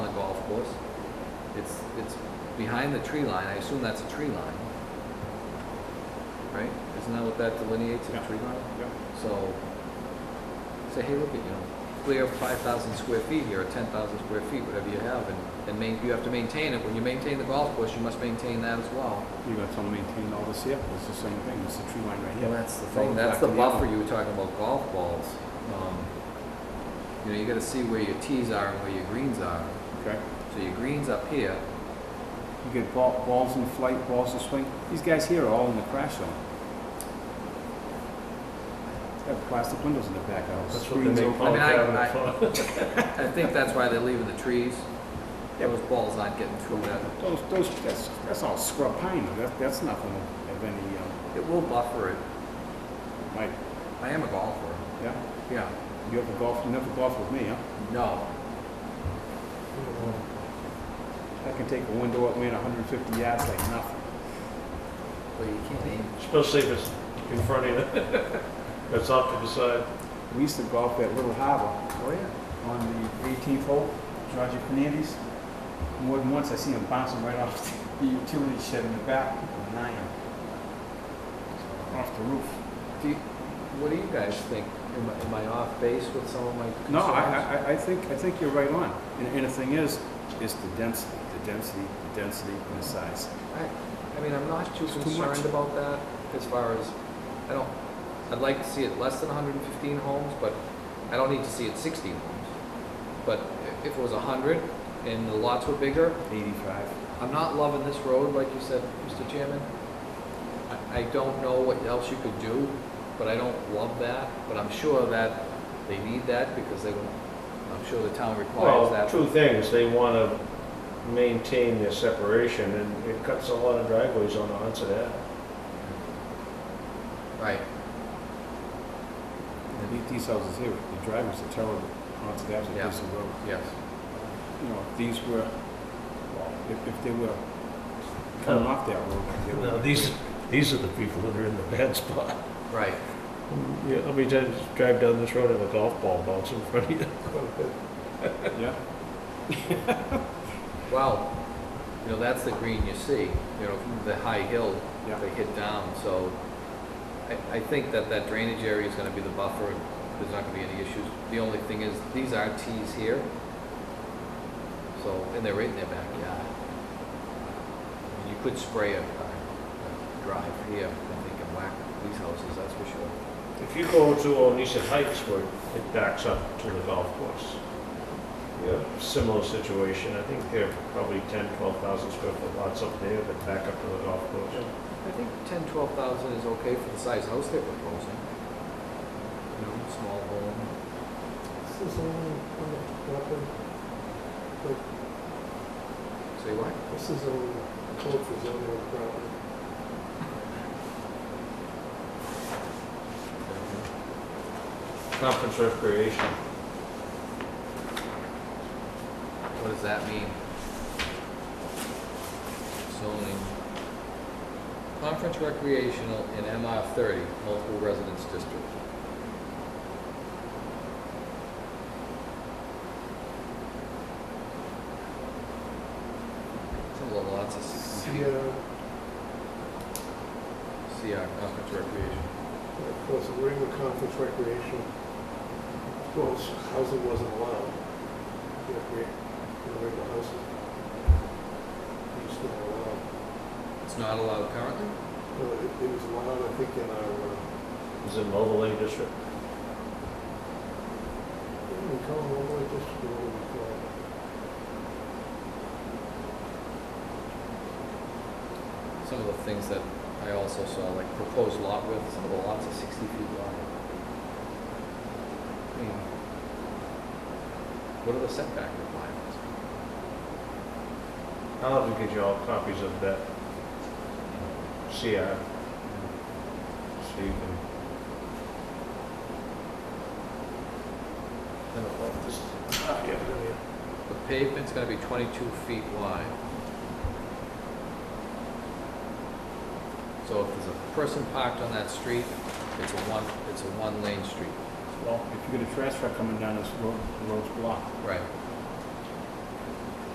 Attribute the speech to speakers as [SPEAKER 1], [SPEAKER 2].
[SPEAKER 1] course. It's, it's behind the tree line, I assume that's a tree line. Right? Isn't that what that delineates, a
[SPEAKER 2] Yeah.
[SPEAKER 1] tree line?
[SPEAKER 2] Yeah.
[SPEAKER 1] So, say, hey, look at, you know, clear five thousand square feet here, or ten thousand square feet, whatever you have, and, and main, you have to maintain it, when you maintain the golf course, you must maintain that as well.
[SPEAKER 2] You gotta tell them maintain all this here, it's the same thing, it's the tree line right here.
[SPEAKER 1] Well, that's the
[SPEAKER 2] It
[SPEAKER 1] thing,
[SPEAKER 2] goes
[SPEAKER 1] that's
[SPEAKER 2] back
[SPEAKER 1] the
[SPEAKER 2] to
[SPEAKER 1] buffer
[SPEAKER 2] other-
[SPEAKER 1] you were talking about golf balls. Um, You know, you gotta see where your tees are and where your greens are,
[SPEAKER 2] Okay,
[SPEAKER 1] so your green's up here,
[SPEAKER 2] you get ball, balls in flight, balls in swing, these guys here are all in the crash zone. They have plastic windows in the back of the house.
[SPEAKER 3] That's what they
[SPEAKER 2] screens
[SPEAKER 3] make
[SPEAKER 2] over-
[SPEAKER 3] Palm
[SPEAKER 1] mean, I-
[SPEAKER 3] Cabinet for.
[SPEAKER 1] I think that's why they're leaving the trees,
[SPEAKER 2] Yep.
[SPEAKER 1] those balls aren't getting through that,
[SPEAKER 2] Those, those, that's, that's all scrub pine, that, that's nothing of any, um,
[SPEAKER 1] it will buffer it,
[SPEAKER 2] like,
[SPEAKER 1] I am a golfer,
[SPEAKER 2] yeah?
[SPEAKER 1] yeah,
[SPEAKER 2] You ever golf, you never golf with me, huh?
[SPEAKER 1] no,
[SPEAKER 2] I can take a window up, man, hundred and fifty yards like nothing.
[SPEAKER 1] but you can't aim.
[SPEAKER 3] Especially if it's in front of you, it's off to the side.
[SPEAKER 2] We used to golf at Little Harbor
[SPEAKER 1] Oh, yeah.
[SPEAKER 2] on the eighteenth hole, Roger Fernandes. More than once, I see him bouncing right off the utility shed in the back, with an iron. Off the roof.
[SPEAKER 1] Do you, what do you guys think? Am I, am I off base with some of my concerns?
[SPEAKER 2] No, I, I, I think, I think you're right on. And, and the thing is, is the density, the density, the density and the size.
[SPEAKER 1] I- I mean, I'm not too
[SPEAKER 2] It's too much.
[SPEAKER 1] concerned about that as far as, I don't, I'd like to see it less than hundred and fifteen homes, but I don't need to see it sixteen homes. But i- if it was hundred and the lots were bigger,
[SPEAKER 2] Eighty-five.
[SPEAKER 1] I'm not loving this road, like you said, Mr. Chairman. I, I don't know what else you could do, but I don't love that, but I'm sure that they need that because they, I'm sure the town requires
[SPEAKER 3] Well,
[SPEAKER 1] that.
[SPEAKER 3] two things, they want to maintain their separation, and it cuts a lot of driveways on onto that.
[SPEAKER 1] Right.
[SPEAKER 2] These- These houses here, the driveways are terrible. Onto that,
[SPEAKER 1] Yeah.
[SPEAKER 2] piece of road.
[SPEAKER 1] Yes.
[SPEAKER 2] you know, if these were, if, if they were coming off that road. they would-
[SPEAKER 3] No, these, these are the people that are in the bad spot.
[SPEAKER 1] Right.
[SPEAKER 3] Yeah, how many times you drive down this road and a golf ball bounces in front of you?
[SPEAKER 2] Yeah,
[SPEAKER 1] Well, you know, that's the green you see, you know, from the high hill
[SPEAKER 2] Yeah.
[SPEAKER 1] they hit down, so I, I think that that drainage area is gonna be the buffer, there's not gonna be any issues. The only thing is, these are tees here, so, and they're right in their backyard. I mean, You could spray a, a drive here, I think, and whack these houses, that's for sure.
[SPEAKER 3] If you go to Onset Heights where it backs up to the golf course, you have a similar situation. I think they're probably 10, 12,000 square foot lots up there that back up to the golf course.
[SPEAKER 1] I think ten, twelve thousand is okay for the size house they're proposing. You know, small home.
[SPEAKER 4] This is only on the weapon,
[SPEAKER 1] Say what?
[SPEAKER 4] this is only code for zoning property.
[SPEAKER 3] Conference recreation.
[SPEAKER 1] What does that mean? Zoning. Conference recreational in MR thirty, multiple residence district. It's a lot- Lots of
[SPEAKER 4] See,
[SPEAKER 1] CR,
[SPEAKER 4] uh,
[SPEAKER 1] conference recreation.
[SPEAKER 4] of course, we're in the conference recreation. Of course, housing wasn't allowed. Recre- you know, regular houses. It's not allowed.
[SPEAKER 1] It's not allowed currently?
[SPEAKER 4] No, it, it was allowed, I think, in our, uh,
[SPEAKER 3] Is it an overlay district?
[SPEAKER 4] what do we call it, overlay uh, district, or what do we call it?
[SPEAKER 1] Some of the things that I also saw, like proposed lot width, some of the lots are sixty feet wide. I mean, What are the setback requirements?
[SPEAKER 3] I'll have to get you all copies of that CR. So you can. I don't like this. Ah, yeah, there we are.
[SPEAKER 1] The pavement's gonna be twenty-two feet wide. So if there's a person parked on that street, it's a one, it's a one-lane street.
[SPEAKER 2] well, if you get a trash truck coming down this road, the road's blocked.
[SPEAKER 1] Right.
[SPEAKER 2] You